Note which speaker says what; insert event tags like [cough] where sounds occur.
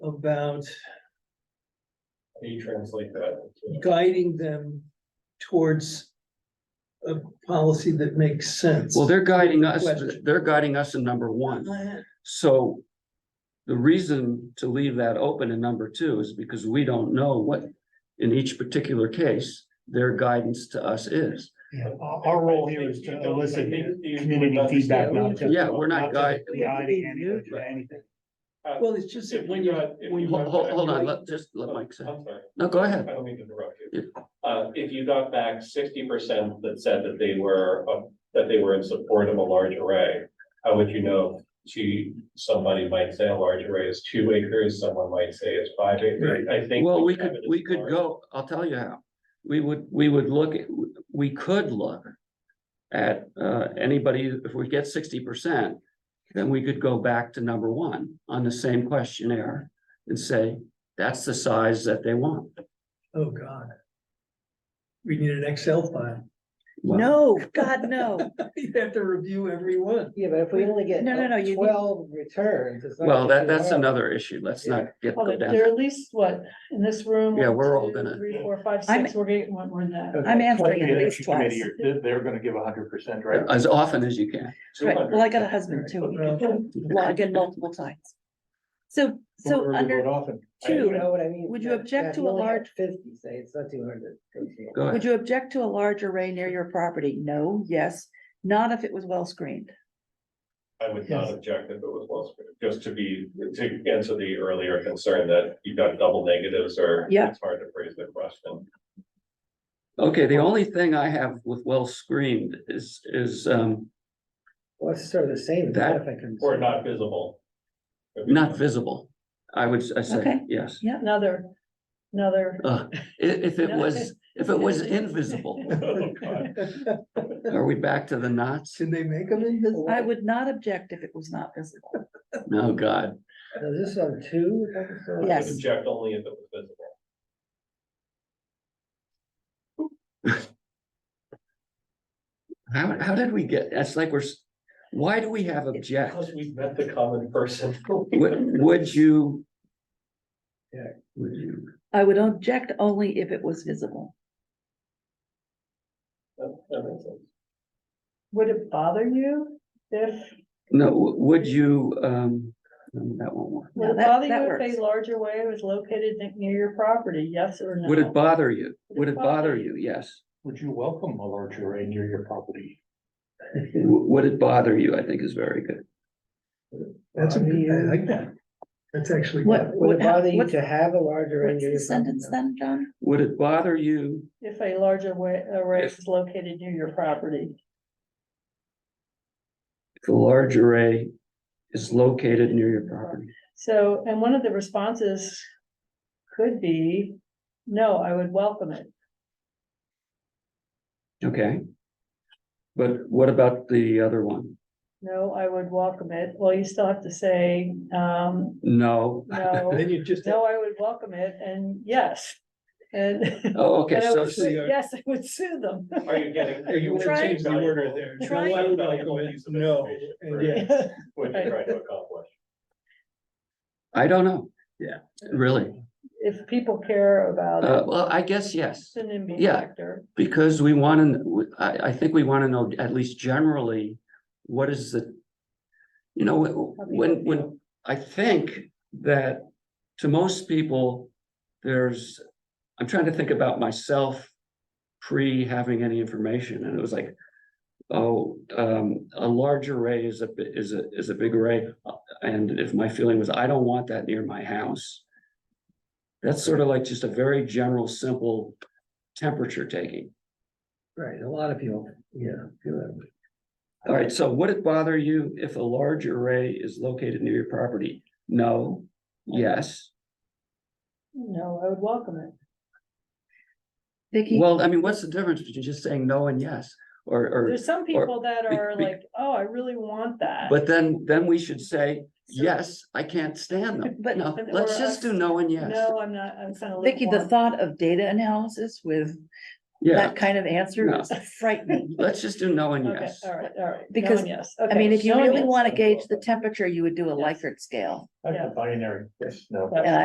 Speaker 1: about
Speaker 2: How do you translate that? into-
Speaker 1: guiding them towards a policy that makes sense.
Speaker 3: Well, they're guiding us,
Speaker 1: Question.
Speaker 3: they're guiding us in number one,
Speaker 1: I-
Speaker 3: so. The reason to leave that open in number two is because we don't know what, in each particular case, their guidance to us is.
Speaker 4: Yeah, our, our role here is to
Speaker 2: I think you
Speaker 4: elicit
Speaker 2: don't- I think
Speaker 4: community
Speaker 2: you
Speaker 4: feedback, not
Speaker 2: understand.
Speaker 4: just.
Speaker 3: Yeah, we're not guiding.
Speaker 1: We have to be
Speaker 4: Guiding anybody to
Speaker 3: neutral.
Speaker 4: anything.
Speaker 1: Well, it's just that
Speaker 2: If
Speaker 1: when
Speaker 2: you
Speaker 1: you,
Speaker 2: got- if
Speaker 1: when
Speaker 2: you
Speaker 1: you,
Speaker 2: got
Speaker 3: Hold, hold,
Speaker 2: back-
Speaker 3: hold on, let, just let Mike say.
Speaker 2: I'm sorry,
Speaker 3: No, go
Speaker 2: I
Speaker 3: ahead.
Speaker 2: don't mean to interrupt you. Uh, if you got back sixty percent that said that they were, uh, that they were in support of a large array, how would you know? To, somebody might say a large array is two acres, someone might say it's five acres, I think.
Speaker 3: Well, we
Speaker 2: have
Speaker 3: could,
Speaker 2: it as
Speaker 3: we could
Speaker 2: large.
Speaker 3: go, I'll tell you how. We would, we would look, at- we could look at uh anybody, if we get sixty percent, then we could go back to number one on the same questionnaire and say, that's the size that they want.
Speaker 1: oh, God. We need an Excel file. [laughs]
Speaker 3: Well,
Speaker 5: No, God, no.
Speaker 1: You'd have to review every one.
Speaker 6: Yeah, but if we only get
Speaker 5: No, no, no, you need-
Speaker 6: twelve returns. it's not
Speaker 3: Well,
Speaker 6: gonna
Speaker 3: that,
Speaker 6: be
Speaker 3: that's
Speaker 6: hard.
Speaker 3: another issue. Let's not get
Speaker 7: Oh,
Speaker 3: go
Speaker 7: but
Speaker 3: down.
Speaker 7: There are at least, what, in this room?
Speaker 3: Yeah,
Speaker 7: one,
Speaker 3: we're all
Speaker 7: two,
Speaker 3: gonna-
Speaker 7: Three, four, five,
Speaker 5: I'm-
Speaker 7: six, we're getting one more than that.
Speaker 5: I'm
Speaker 6: Okay.
Speaker 5: answering at least twice.
Speaker 4: They're, they're gonna give hundred percent,
Speaker 3: As often as you can.
Speaker 5: Right, well, I got a
Speaker 2: 200.
Speaker 5: husband too. He
Speaker 1: Well,
Speaker 5: can log in multiple times. So, so under
Speaker 6: You
Speaker 5: two,
Speaker 6: know what I mean?
Speaker 5: Would you
Speaker 6: That-
Speaker 5: object
Speaker 6: that
Speaker 5: to
Speaker 6: you
Speaker 5: a
Speaker 6: only have
Speaker 5: large-
Speaker 6: Fifty, say, it's not two hundred.
Speaker 3: Go
Speaker 5: would
Speaker 3: ahead.
Speaker 5: you object to a large array near your property? No, yes, not if it was well screened.
Speaker 2: I would not object if it was well scripted, just to be, to answer the earlier concern that you've got double negatives or.
Speaker 5: Yeah.
Speaker 2: It's hard to phrase the question.
Speaker 3: Okay, the only thing I have with well screened is, is um
Speaker 6: Well, it's sort of the same.
Speaker 3: That-
Speaker 6: if I can-
Speaker 2: Or not visible.
Speaker 3: not visible. I would, I say,
Speaker 5: Okay.
Speaker 3: yes.
Speaker 7: Another, another.
Speaker 3: Uh, i- if it was, if it was invisible,
Speaker 2: Oh, God.
Speaker 3: are we back to the knots?
Speaker 1: Can they make them invisible?
Speaker 5: I would not object if it was not visible.
Speaker 3: No, God.
Speaker 6: Now, Is this on two? Is that the sort of-
Speaker 2: I
Speaker 5: Yes.
Speaker 2: would object only if it was visible.
Speaker 3: How, how did we get, that's like we're, s- why do we have object?
Speaker 2: Because we've met the common person.
Speaker 3: Would, would you?
Speaker 6: Yeah.
Speaker 3: Would you?
Speaker 5: I would object only if it was visible.
Speaker 2: That- that makes sense.
Speaker 7: Would it bother you if,
Speaker 3: No, w- would you, um, no, that won't work.
Speaker 7: would
Speaker 5: No,
Speaker 7: it
Speaker 5: that-
Speaker 7: bother
Speaker 5: that
Speaker 7: you if
Speaker 5: works.
Speaker 7: a larger way was located ne- near your property? Yes or no?
Speaker 3: Would it bother you? Would it bother you? Yes.
Speaker 4: Would you welcome a large array near your property?
Speaker 3: W- Would it bother you? I think is very good.
Speaker 1: That's, a- I like that. That's actually.
Speaker 5: What,
Speaker 6: Would
Speaker 5: what,
Speaker 6: it bother you
Speaker 5: what's,
Speaker 6: to have a larger?
Speaker 5: what's the sentence then, John?
Speaker 3: Would it bother you?
Speaker 7: If a larger way, array
Speaker 3: If-
Speaker 7: was located near your property?
Speaker 3: if The large array is located near your property.
Speaker 7: So, and one of the responses could be, no, I would welcome it.
Speaker 3: Okay. But what about the other one?
Speaker 7: No, I would welcome it. Well, you still have to say, um,
Speaker 3: [laughs] No.
Speaker 7: no.
Speaker 1: Then you just.
Speaker 7: No, I would welcome it and yes. And. [laughs] and
Speaker 3: Oh, okay,
Speaker 7: I
Speaker 3: so,
Speaker 7: would
Speaker 1: so
Speaker 7: sue-
Speaker 1: you're-
Speaker 7: Yes, I would sue them.
Speaker 2: Are you getting?
Speaker 1: Are you
Speaker 5: Try-
Speaker 1: change the order there?
Speaker 5: try-
Speaker 1: No, I would like
Speaker 2: Valuable
Speaker 1: it.
Speaker 2: piece of
Speaker 1: No,
Speaker 2: information
Speaker 1: and
Speaker 2: for
Speaker 1: yes.
Speaker 2: What you're trying to accomplish.
Speaker 3: I don't know.
Speaker 1: Yeah.
Speaker 3: Really?
Speaker 7: If people care about
Speaker 3: Uh,
Speaker 7: it,
Speaker 3: well, I guess yes,
Speaker 7: it's an immediate
Speaker 3: yeah.
Speaker 7: factor.
Speaker 3: because we want to, I, I think we want to know at least generally, what is the, you know, when, when, I think that to most people, there's, I'm trying to think about myself pre having any information, and it was like, oh, um, a large array is a, bi- is a, is a big array, uh, and if my feeling was, I don't want that near my house. That's sort of like just a very general, simple temperature taking.
Speaker 6: Right, a lot of people, yeah, feel that way.
Speaker 3: All right, so would it bother you if a large array is located near your property? No, yes.
Speaker 7: No, I would welcome it.
Speaker 5: Vicky?
Speaker 3: Well, I mean, what's the difference between just saying no and yes? Or, or,
Speaker 7: There's some
Speaker 3: Or- or
Speaker 7: people that
Speaker 3: be-
Speaker 7: are
Speaker 3: be-
Speaker 7: like, oh, I really want that.
Speaker 3: but then, then we should say, yes, I can't stand them.
Speaker 5: But-
Speaker 3: No,
Speaker 7: but-
Speaker 3: let's
Speaker 7: or
Speaker 3: just do
Speaker 7: us-
Speaker 3: no and yes.
Speaker 7: No, I'm not, I'm kind of.
Speaker 5: Vicky, the thought of data analysis with
Speaker 3: Yeah,
Speaker 7: [laughs]
Speaker 5: that kind of answer
Speaker 3: No.
Speaker 5: is
Speaker 3: [laughs]
Speaker 5: frightening.
Speaker 3: let's just do no and
Speaker 7: Okay,
Speaker 3: yes.
Speaker 7: all right, all right. No and
Speaker 5: Because,
Speaker 7: yes.
Speaker 5: I
Speaker 7: Okay,
Speaker 5: mean, if you
Speaker 7: no and
Speaker 5: really
Speaker 7: yes.
Speaker 5: want to gauge the temperature, you would do a
Speaker 7: Yes.
Speaker 5: Likert scale.
Speaker 4: That's a binary, yes, no.
Speaker 7: That's-
Speaker 5: And